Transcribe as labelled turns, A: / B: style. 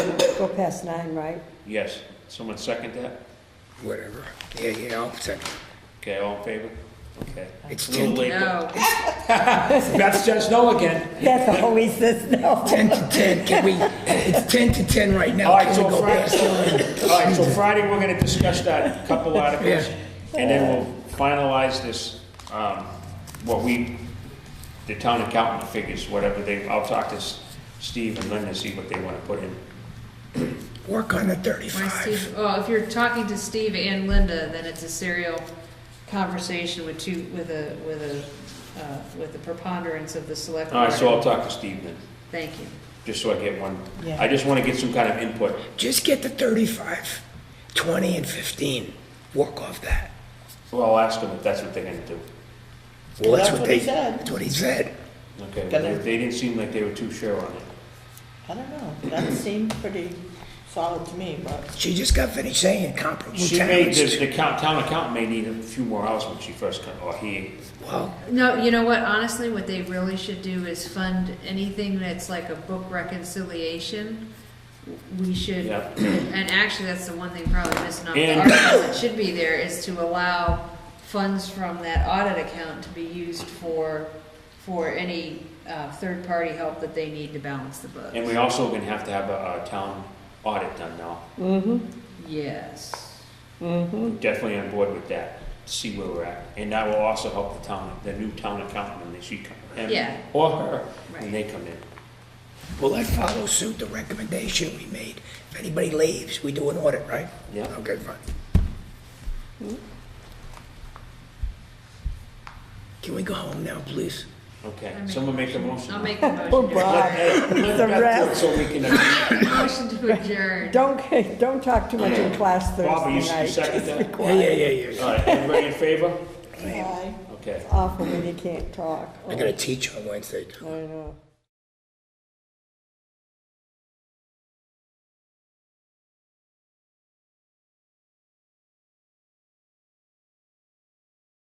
A: go past nine, right?
B: Yes, someone second that?
C: whatever. Yeah, yeah, I'll second.
B: Okay, all in favor? Okay.
C: It's
B: A little
C: ten,
B: late, but
D: No,
B: Beth says no again.
A: That's how he says no.
C: ten to ten, can we, it's ten to ten right now.
B: All right,
C: Can
B: so
C: we go
B: Friday,
C: past it?
B: all right, so Friday, we're gonna discuss that couple articles, and then we'll finalize this, um, what we, the town accountant figures, whatever they, I'll talk to S- Steve and Linda, see what they wanna put in.
C: Work on the
D: my
C: thirty-five.
D: Steve, well, if you're talking to Steve and Linda, then it's a serial conversation with two, with a, with a, uh, with the preponderance of the select.
B: All right, so I'll
D: board.
B: talk to Steve then,
D: Thank you.
B: just so I get one, I just wanna get some kind of input.
C: Just get the thirty-five, twenty and fifteen. Work off that.
B: Well, I'll ask them if that's what they're gonna do.
C: Well, that's
E: That's
C: what
E: what
C: they,
E: he said.
C: that's what he said.
B: Okay,
E: Gonna-
B: well, they didn't seem like they were too sure on it.
E: I don't know, that seemed pretty solid to me, but
C: She just got finished saying comparable
B: She may,
C: towns.
B: the, the count- town accountant may need a few more hours when she first comes, or he,
C: Well,
D: No, you know what, honestly, what they really should do is fund anything that's like a book reconciliation. We should,
B: Yeah.
D: and actually, that's the one thing probably missing on the
B: And-
D: article that should be there, is to allow funds from that audit account to be used for, for any, uh, third-party help that they need to balance the books.
B: and we also gonna have to have a, a town audit done now.
D: Yes.
B: We're
D: Mm.
B: Definitely on board with that, to see where we're at, and that will also help the town, the new town accountant when she come,
D: Yeah.
B: him or her, when
D: Right.
B: they come in.
C: well, that follows suit the recommendation we made. If anybody leaves, we do an audit, right?
B: Yeah.
C: Okay, fine. Can we go home now, please?
B: Okay,
D: I make
B: someone make a motion.
D: I'll make the
A: Poor
D: motion.
A: Bob.
B: Let- let
A: The
B: Beth do it
A: rest.
B: So we can, uh,
D: Motion to adjourn.
A: Don't, don't talk too much in class
B: Bob, you
A: Thursday
B: you
A: night.
B: second that?
C: Yeah, yeah, yeah, yeah, yeah.
B: All right, everybody in favor?
E: I
B: Okay.
A: Awful when you can't talk. Oh,
C: I gotta teach on Wednesday.
A: I know.